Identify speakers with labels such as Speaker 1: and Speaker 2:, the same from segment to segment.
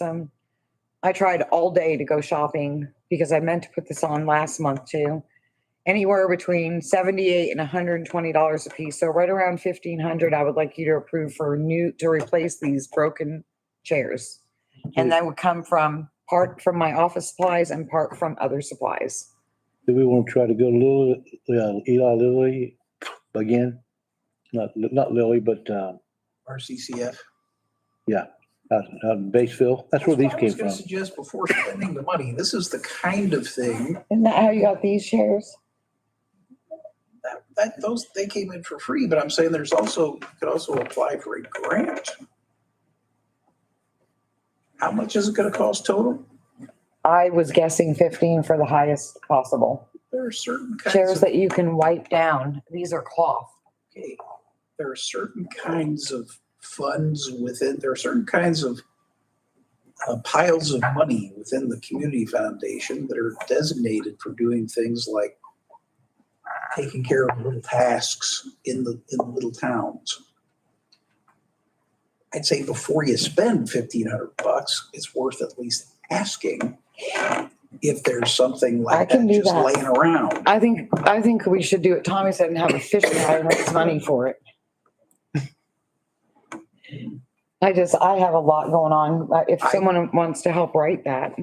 Speaker 1: um, I tried all day to go shopping because I meant to put this on last month too. Anywhere between seventy-eight and hundred and twenty dollars a piece, so right around fifteen hundred, I would like you to approve for new, to replace these broken chairs. And that would come from, part from my office supplies and part from other supplies.
Speaker 2: Do we want to try to go Lily, uh, Eli Lilly again? Not, not Lilly, but, uh,
Speaker 3: RCCF.
Speaker 2: out, out in Batesville. That's where these
Speaker 3: what I
Speaker 2: came
Speaker 3: was
Speaker 2: from.
Speaker 3: gonna Suggest before spending the money, this is the kind of thing
Speaker 1: Isn't that how you got these chairs?
Speaker 3: that, that, those, they came in for free, but I'm saying there's also, you could also apply for a grant. How much is it gonna cost total?
Speaker 1: I was guessing fifteen for the highest possible.
Speaker 3: There are certain
Speaker 1: Chairs
Speaker 3: kinds of,
Speaker 1: that you can wipe down, these are cloth.
Speaker 3: okay, there are certain kinds of funds within, there are certain kinds of uh, piles of money within the community foundation that are designated for doing things like taking care of little tasks in the, in the little towns. I'd say before you spend fifteen hundred bucks, it's worth at least asking if there's something
Speaker 1: I
Speaker 3: like
Speaker 1: can
Speaker 3: that
Speaker 1: do
Speaker 3: just
Speaker 1: that.
Speaker 3: laying around.
Speaker 1: I think, I think we should do it. Tommy said and have a fish fry and raise money for it. I just, I have a lot going on. Uh, If
Speaker 3: I-
Speaker 1: someone wants to help write that,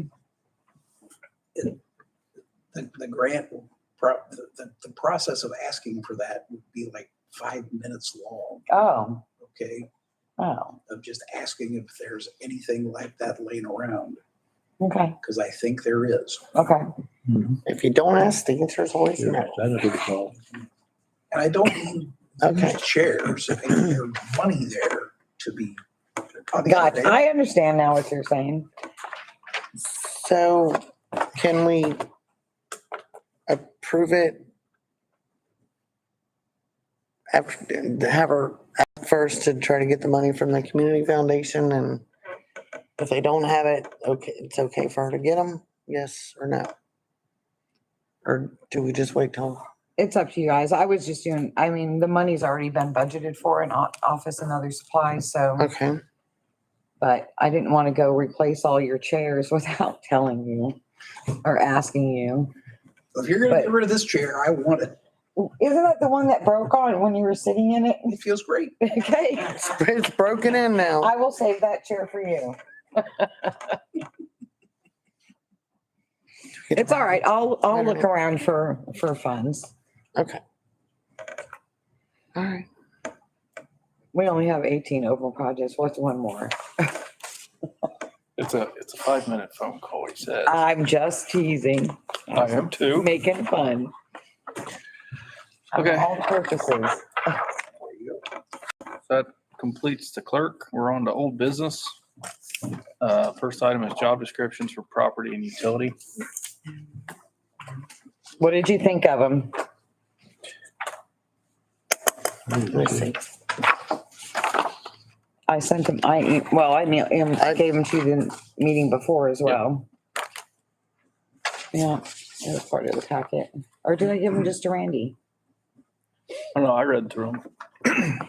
Speaker 3: the, the grant, will pro- the, the, the process of asking for that would be like five minutes long,
Speaker 1: oh,
Speaker 3: okay?
Speaker 1: oh,
Speaker 3: Of just asking if there's anything like that laying around,
Speaker 1: okay,
Speaker 3: because I think there is.
Speaker 1: okay.
Speaker 2: Mhm.
Speaker 4: If you don't ask, the answer is always
Speaker 2: You're right.
Speaker 4: no.
Speaker 2: I know who it's called.
Speaker 3: And I don't mean
Speaker 4: Okay.
Speaker 3: these chairs, I mean, there's money there to be. on the
Speaker 1: God,
Speaker 3: other day,
Speaker 1: I understand now what you're saying.
Speaker 4: So can we approve it? After, to have her act first to try to get the money from the community foundation and if they don't have it, okay, it's okay for her to get them, yes or no? Or do we just wait till,
Speaker 1: It's up to you guys. I was just doing, I mean, the money's already been budgeted for in o- office and other supplies, so,
Speaker 4: okay,
Speaker 1: but I didn't want to go replace all your chairs without telling you or asking you.
Speaker 3: If you're gonna
Speaker 1: but-
Speaker 3: get rid of this chair, I want it.
Speaker 1: Isn't that the one that broke on when you were sitting in it?
Speaker 3: It feels great.
Speaker 1: Okay.
Speaker 4: it's broken in now.
Speaker 1: I will save that chair for you. It's all right. I'll, I'll look around for, for funds.
Speaker 4: Okay. All right,
Speaker 1: We only have 18 open projects. What's one more?
Speaker 5: It's a, it's a five minute phone call, he said.
Speaker 1: I'm just teasing,
Speaker 5: I am too.
Speaker 1: making fun. of
Speaker 5: Okay.
Speaker 1: All purposes.
Speaker 5: That completes the clerk. We're on to old business. Uh, first item is job descriptions for property and utility.
Speaker 1: What did you think of them?
Speaker 4: let me see.
Speaker 1: I sent them, I, e- well, I mail- em- I gave them to you the meeting before as well. Yeah, it was part of the packet. Or did I give them just to Randy?
Speaker 5: I don't know, Oh, I read through them.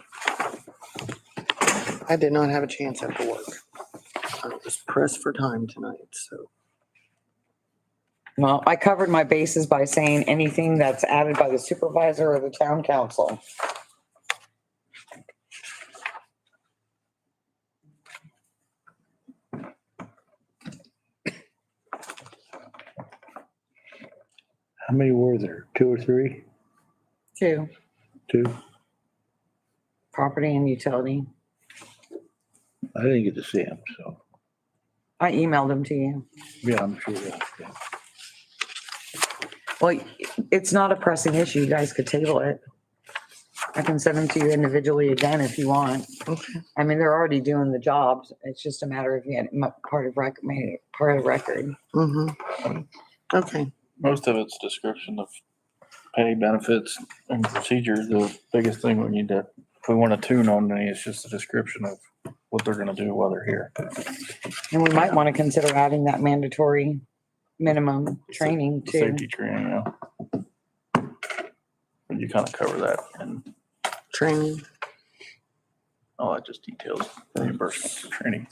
Speaker 4: I did not have a chance at the work. I was pressed for time tonight, so.
Speaker 1: Well, I covered my bases by saying anything that's added by the supervisor or the town council.
Speaker 2: How many were there? Two or three?
Speaker 1: Two.
Speaker 2: Two?
Speaker 1: Property and utility.
Speaker 2: I didn't get to see them, so,
Speaker 1: I emailed them to you.
Speaker 2: yeah, I'm sure. yeah, yeah.
Speaker 1: Well, it's not a pressing issue. You guys could table it. I can send them to you individually again if you want.
Speaker 4: Okay.
Speaker 1: I mean, they're already doing the jobs. It's just a matter of, you know, part of rec, made it part of record.
Speaker 4: hmm Okay,
Speaker 5: Most of it's description of pay benefits and procedure. The biggest thing we need to, if we want to tune on any, it's just a description of what they're gonna do while they're here.
Speaker 1: And we might want to consider adding that mandatory minimum training
Speaker 5: The
Speaker 1: too.
Speaker 5: Safety training, yeah. But you kind of cover that and
Speaker 4: training.
Speaker 5: all that just details reimbursement for training.